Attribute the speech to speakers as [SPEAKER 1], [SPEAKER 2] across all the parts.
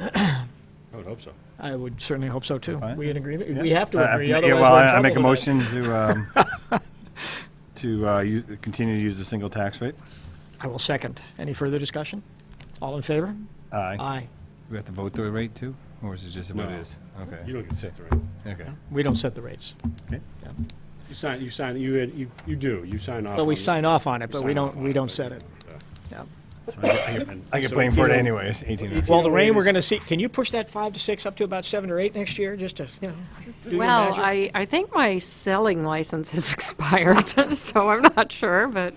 [SPEAKER 1] I would hope so.
[SPEAKER 2] I would certainly hope so, too.
[SPEAKER 3] Fine.
[SPEAKER 2] We in agreement?
[SPEAKER 3] Yeah.
[SPEAKER 2] We have
[SPEAKER 3] I
[SPEAKER 2] to
[SPEAKER 3] have
[SPEAKER 2] agree,
[SPEAKER 3] to make- yeah,
[SPEAKER 2] otherwise
[SPEAKER 3] Well,
[SPEAKER 2] we're in
[SPEAKER 3] I I make a
[SPEAKER 2] trouble
[SPEAKER 3] motion to, um, to uh, u- continue to use the single tax rate.
[SPEAKER 2] today. I will second. Any further discussion? All in favor?
[SPEAKER 3] Aye.
[SPEAKER 2] Aye.
[SPEAKER 4] We have to vote the rate too, or is it just what
[SPEAKER 1] No.
[SPEAKER 4] it is?
[SPEAKER 1] You
[SPEAKER 4] Okay,
[SPEAKER 1] don't get set the rate.
[SPEAKER 4] okay.
[SPEAKER 2] We don't set the rates.
[SPEAKER 1] You sign, you sign, you, had- you, you do, you sign off.
[SPEAKER 2] But we
[SPEAKER 1] on-
[SPEAKER 2] sign off on it,
[SPEAKER 1] you
[SPEAKER 2] but we
[SPEAKER 1] sign off
[SPEAKER 2] don't,
[SPEAKER 1] on
[SPEAKER 2] we don't
[SPEAKER 1] but-
[SPEAKER 2] set it. Yeah.
[SPEAKER 3] So I get-
[SPEAKER 1] And
[SPEAKER 4] I get
[SPEAKER 1] so
[SPEAKER 4] blamed for it
[SPEAKER 1] 18
[SPEAKER 4] anyways, eighteen.
[SPEAKER 1] Well,
[SPEAKER 4] hours.
[SPEAKER 2] Well, the
[SPEAKER 1] know,
[SPEAKER 2] rain,
[SPEAKER 1] it
[SPEAKER 2] we're
[SPEAKER 1] is-
[SPEAKER 2] going to see, can you push that five to six up to about seven or eight next year, just to, you know, do your
[SPEAKER 5] Well,
[SPEAKER 2] magic?
[SPEAKER 5] I, I think my selling license has expired, so I'm not sure, but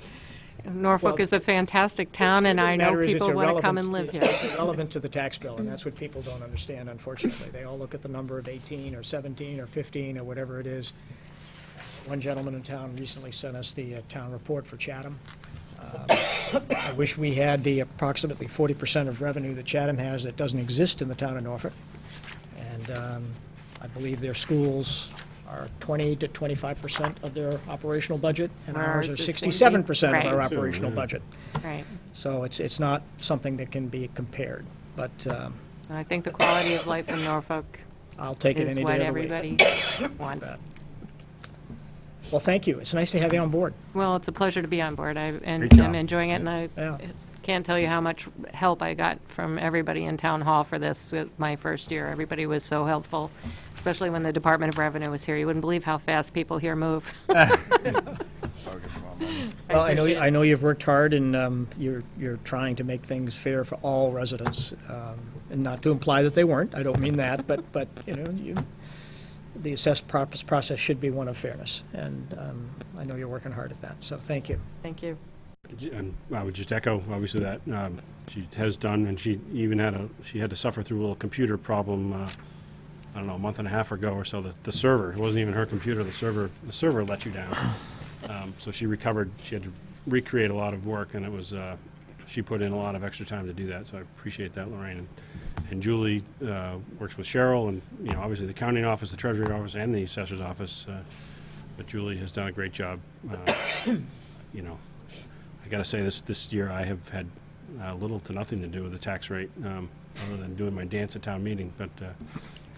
[SPEAKER 5] Norfolk
[SPEAKER 2] Well,
[SPEAKER 5] is a fantastic town, and
[SPEAKER 2] The
[SPEAKER 5] I know
[SPEAKER 2] matter is it's
[SPEAKER 5] people want to come
[SPEAKER 2] irrelevant-
[SPEAKER 5] and live here.
[SPEAKER 2] It's relevant to the tax bill, and that's what people don't understand, unfortunately. They all look at the number of 18 or 17 or 15 or whatever it is. One gentleman in town recently sent us the uh, town report for Chatham. Um, I wish we had the approximately 40% of revenue that Chatham has that doesn't exist in the town of Norfolk. And um, I believe their schools are 20 to 25% of their operational budget, and ours
[SPEAKER 5] Ours
[SPEAKER 2] are
[SPEAKER 5] is 60.
[SPEAKER 2] 67% of our
[SPEAKER 5] Right.
[SPEAKER 2] operational budget.
[SPEAKER 5] Right.
[SPEAKER 2] So it's, it's not something that can be compared, but um,
[SPEAKER 5] And I think the quality of life in Norfolk
[SPEAKER 2] I'll take it
[SPEAKER 5] is
[SPEAKER 2] any
[SPEAKER 5] what
[SPEAKER 2] day of the week.
[SPEAKER 5] everybody wants.
[SPEAKER 2] Well, thank you. It's nice to have you on board.
[SPEAKER 5] Well, it's a pleasure to be on board. I, and
[SPEAKER 3] Great job.
[SPEAKER 5] I'm enjoying it, and I
[SPEAKER 2] Yeah.
[SPEAKER 5] can't tell you how much help I got from everybody in Town Hall for this uh, my first year. Everybody was so helpful, especially when the Department of Revenue was here. You wouldn't believe how fast people here move.
[SPEAKER 2] Well, I know,
[SPEAKER 5] appreciate
[SPEAKER 2] I know you've worked hard and um, you're, you're trying to make things fair for all residents. um, And not to imply that they weren't, I don't mean that, but, but, you know, you, the assess prop- process should be one of fairness. And um, I know you're working hard at that, so thank you.
[SPEAKER 5] Thank you.
[SPEAKER 1] And um, I would just echo, obviously, that um, she has done, and she even had a, she had to suffer through a little computer problem, uh, I don't know, a month and a half ago or so, that the server, it wasn't even her computer, the server, the server let you down. Um, So she recovered, she had to recreate a lot of work, and it was, uh, she put in a lot of extra time to do that, so I appreciate that, Lorraine. And- And Julie uh, works with Cheryl, and, you know, obviously, the accounting office, the treasury office, and the assessor's office, uh, but Julie has done a great job, uh, you know, I gotta say, this, this year I have had uh, little to nothing to do with the tax rate, um, other than doing my dance at town meeting, but uh,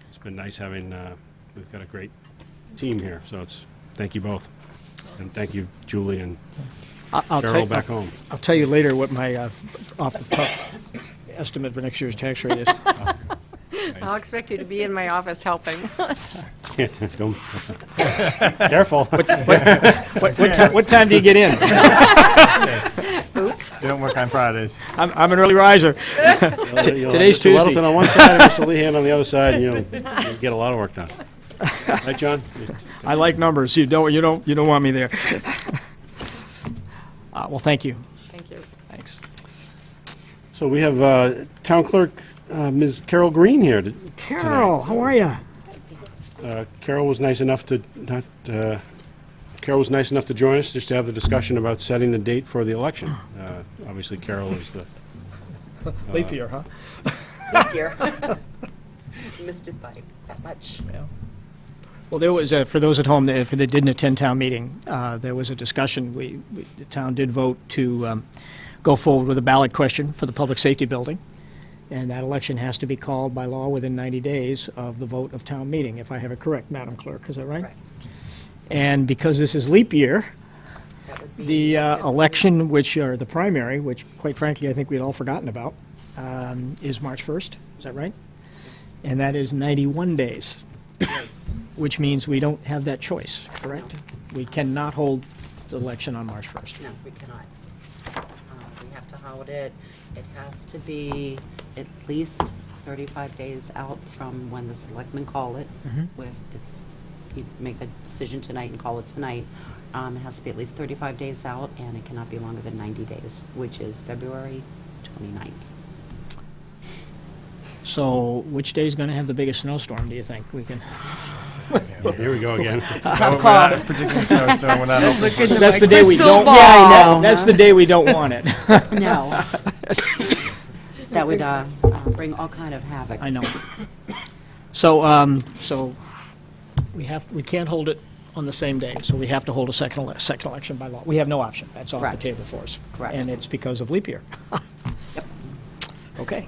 [SPEAKER 1] it's been nice having, uh, we've got a great team here, so it's, thank you both. And thank you, Julie and Cheryl back home.
[SPEAKER 2] I'll tell you later what my uh, off the top estimate for next year's tax rate is.
[SPEAKER 5] I'll expect you to be in my office helping.
[SPEAKER 1] Don't- Careful.
[SPEAKER 2] What, what, ti- what time do you get in?
[SPEAKER 5] Oops.
[SPEAKER 3] They don't work on Fridays.
[SPEAKER 2] I'm, I'm an early riser. today's
[SPEAKER 1] Mr.
[SPEAKER 2] Tuesday.
[SPEAKER 1] Weddleton on one side, and Mr. Lehan on the other side, and you'll you'll get a lot of work done. Right, John?
[SPEAKER 2] I like numbers. You don't, you don't, you don't want me there. Uh, well, thank you.
[SPEAKER 5] Thank you.
[SPEAKER 2] Thanks.
[SPEAKER 1] So we have uh, Town Clerk uh, Ms. Carol Green here to-
[SPEAKER 2] Carol, how are you?
[SPEAKER 1] Uh, Carol was nice enough to not, uh, Carol was nice enough to join us just to have the discussion about setting the date for the election. Uh, Obviously, Carol is the,
[SPEAKER 2] Leap year, huh?
[SPEAKER 6] year. Missed it by that much.
[SPEAKER 2] Well, there was, uh, for those at home, that- if they didn't attend town meeting, uh, there was a discussion. We, we- the town did vote to um, go forward with a ballot question for the public safety building. And that election has to be called by law within 90 days of the vote of town meeting, if I have it correct, Madam Clerk, is that right?
[SPEAKER 6] Correct.
[SPEAKER 2] And because this is leap year,
[SPEAKER 6] That would be
[SPEAKER 2] the uh, election, which, or the primary, which quite frankly, I think we'd all forgotten about, um, is March 1st, is that right? And that is 91 days,
[SPEAKER 6] nice.
[SPEAKER 2] which means we don't have that choice, correct? We cannot hold the election on March 1st.
[SPEAKER 6] No, we cannot. Uh, We have to hold it. It has to be at least 35 days out from when the selectmen call it. With, if you make the decision tonight and call it tonight, um, it has to be at least 35 days out, and it cannot be longer than 90 days, which is February 29th.
[SPEAKER 2] So which day's going to have the biggest snowstorm, do you think? We can,
[SPEAKER 1] here we go again.
[SPEAKER 3] Tough call. Particularly snowstorm, we're not open for.
[SPEAKER 2] that's the day we don't.
[SPEAKER 6] ball.
[SPEAKER 2] Yeah, I know.
[SPEAKER 6] Huh?
[SPEAKER 2] That's the day we don't want it.
[SPEAKER 6] No. That would uh, uh, bring all kind of havoc.
[SPEAKER 2] I know. So, um, so we have, we can't hold it on the same day, so we have to hold a second, ele- second election by law. We have no option. That's off the
[SPEAKER 6] Correct.
[SPEAKER 2] table for us.
[SPEAKER 6] Correct.
[SPEAKER 2] And it's because of leap year. Okay.